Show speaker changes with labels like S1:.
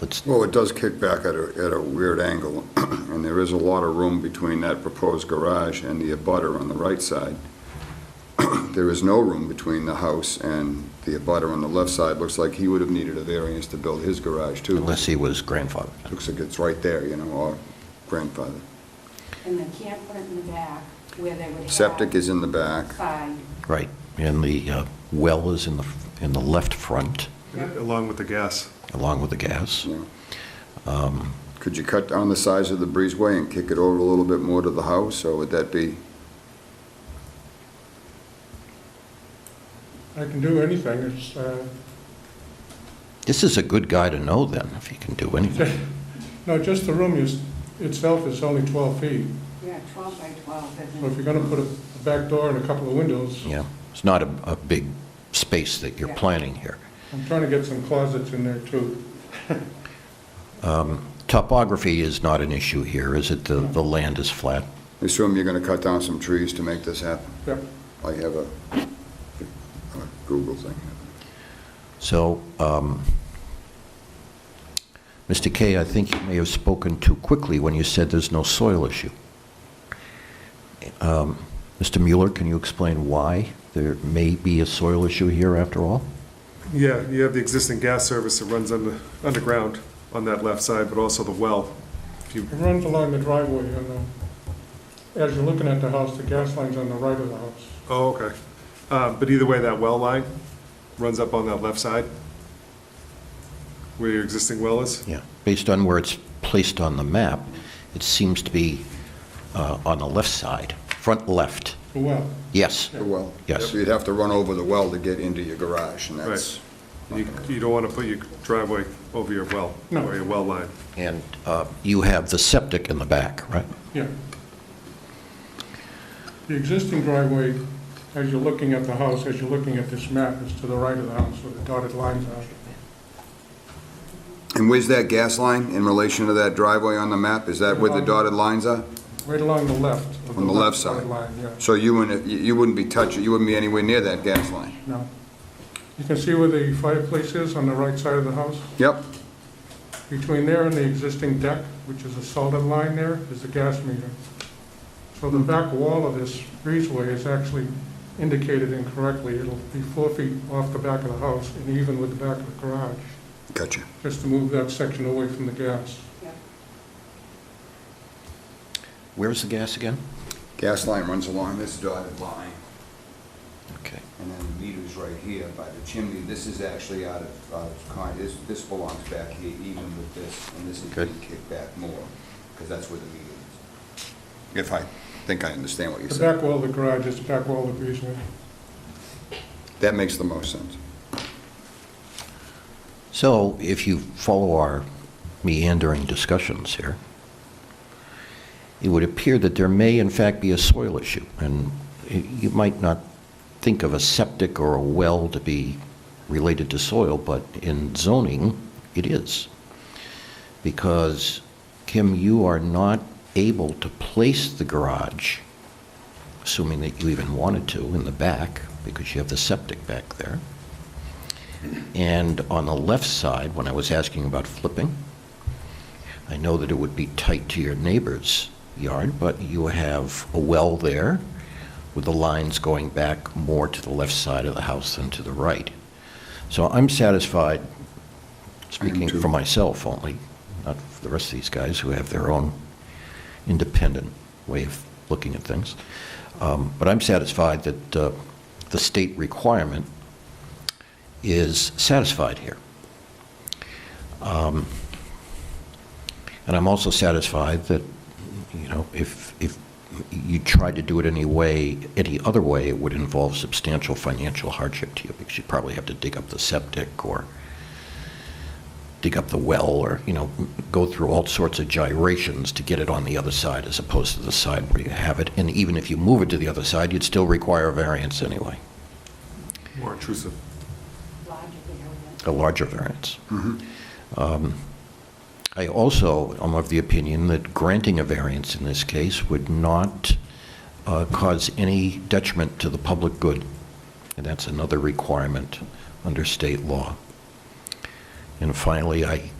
S1: Let's,
S2: Well, it does kick back at a, at a weird angle, and there is a lot of room between that proposed garage and the abutter on the right side. There is no room between the house and the abutter on the left side. Looks like he would have needed a variance to build his garage, too.
S1: unless he was grandfathered.
S2: Looks like it's right there, you know, our grandfather.
S3: And the camper in the back where they would have.
S2: Septic is in the back.
S3: Fine.
S1: Right, and the uh, well is in the, in the left front,
S4: along with the gas.
S1: along with the gas.
S2: Yeah. Could you cut down the size of the breezeway and kick it over a little bit more to the house, or would that be,
S5: I can do anything, it's, uh,
S1: This is a good guy to know then, if he can do anything.
S5: no, just the room is, itself is only 12 feet.
S3: Yeah, 12 by 12, isn't it?
S5: So if you're going to put a back door and a couple of windows,
S1: Yeah, it's not a, a big space that you're
S3: Yeah.
S1: planning here.
S5: I'm trying to get some closets in there too.
S1: Topography is not an issue here, is it? The, the land is flat?
S2: assume you're going to cut down some trees to make this happen?
S5: Yep.
S2: I have a a Google thing.
S1: So, um, Mr. Kay, I think you may have spoken too quickly when you said there's no soil issue. Um, Mr. Mueller, can you explain why there may be a soil issue here after all?
S4: Yeah, you have the existing gas service that runs under, underground on that left side, but also the well. If you,
S5: It runs along the driveway and, uh, as you're looking at the house, the gas line's on the right of the house.
S4: oh, okay. Uh, but either way, that well line runs up on that left side where your existing well is.
S1: Yeah. Based on where it's placed on the map, it seems to be uh, on the left side, front left.
S5: The well,
S1: Yes,
S2: The well?
S1: Yes.
S2: So you'd have to run over the well to get into your garage, and that's,
S4: You, you don't want to put your driveway over your well,
S5: No.
S4: or your well line.
S1: and uh, you have the septic in the back, right?
S5: yeah. The existing driveway, as you're looking at the house, as you're looking at this map, is to the right of the house where the dotted lines are.
S2: and where's that gas line in relation to that driveway on the map? Is that where
S5: Um,
S2: the dotted lines are?
S5: Right along the left. of
S2: On the left side?
S5: dotted Line, yeah.
S2: So you wouldn't, you wouldn't be touching, you wouldn't be anywhere near that gas line?
S5: No. You can see where the fireplace is on the right side of the house?
S2: Yep,
S5: Between there and the existing deck, which is a solid line there, is the gas meter. So the back wall of this breezeway is actually indicated incorrectly. It'll be four feet off the back of the house and even with the back of the garage,
S2: gotcha.
S5: just to move that section away from the gas.
S3: Yeah.
S1: Where's the gas again?
S2: Gas line runs along this dotted line,
S1: Okay.
S2: and then the meter's right here by the chimney. This is actually out of, out of con- this, this belongs back here even with this, and this is
S1: Good.
S2: being kicked back more, because that's where the meter is. If I think I understand what you're
S5: The
S2: saying.
S5: back wall of the garage is the back wall of the breezeway.
S2: That makes the most sense.
S1: So if you follow our meandering discussions here, it would appear that there may in fact be a soil issue, and you might not think of a septic or a well to be related to soil, but in zoning, it is. Because, Kim, you are not able to place the garage, assuming that you even wanted to, in the back, because you have the septic back there. And on the left side, when I was asking about flipping, I know that it would be tight to your neighbor's yard, but you have a well there with the lines going back more to the left side of the house than to the right. So I'm satisfied, speaking for myself only, not for the rest of these guys who have their own independent way of looking at things. Um, But I'm satisfied that uh, the state requirement is satisfied here. Um, And I'm also satisfied that, you know, if, if you tried to do it any way, any other way, it would involve substantial financial hardship to you, because you'd probably have to dig up the septic or dig up the well, or, you know, go through all sorts of gyrations to get it on the other side as opposed to the side where you have it. And even if you move it to the other side, you'd still require a variance anyway,
S4: More intrusive.
S3: Logically, I would.
S1: a larger variance. Um, I also am of the opinion that granting a variance in this case would not uh, cause any detriment to the public good, and that's another requirement under state law. And finally, I